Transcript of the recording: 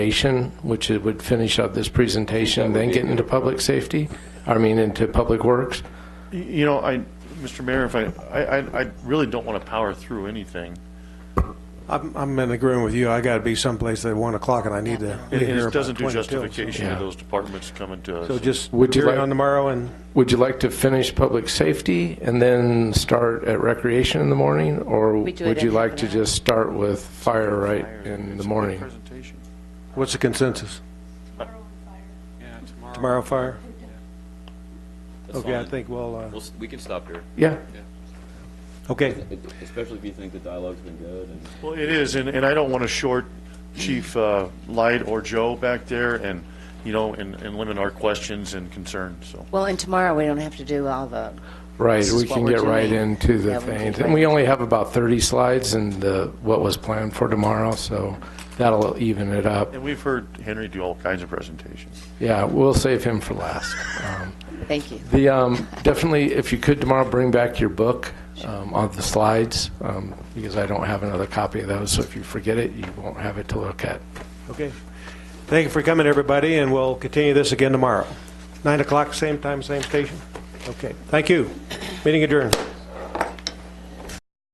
presentation, which it would finish up this presentation, then get into public safety, I mean, into public works. Y- You know, I, Mr. Mayor, if I, I, I- I really don't want to power through anything. I'm, I'm in agreement with you. I got to be someplace at 1 o'clock and I need to. be It- here It about doesn't do 20 till, so- justification Yeah. of those departments coming to So us. just Would you carry like- on tomorrow and, Would you like to finish public safety and then start at recreation in the morning? Or We do it would you in like half to an hour. just start with fire right in the morning? Presentation. what's the consensus? Tomorrow fire? That's Okay, I fine. think we'll, uh, We'll, s- we can stop here, Yeah, okay. especially if you think the dialogue's been good and. Well, it is, and, and I don't want to short Chief uh, Light or Joe back there and, you know, and, and limit our questions and concerns, so. Well, and tomorrow, we don't have to do all the, right, This is we can what we're get right doing. into the Yeah, we can things. get And we right- only have about 30 slides and uh, what was planned for tomorrow, so that'll even it up. And we've heard Henry do all kinds of presentations. Yeah, we'll save him for last. Um, thank you. The, um, definitely, if you could tomorrow, bring back your book um, on the slides, um, because I don't have another copy of those, so if you forget it, you won't have it to look at. Okay. Thank you for coming, everybody, and we'll continue this again tomorrow. 9 o'clock, same time, same station? Okay, thank you. Meeting adjourned.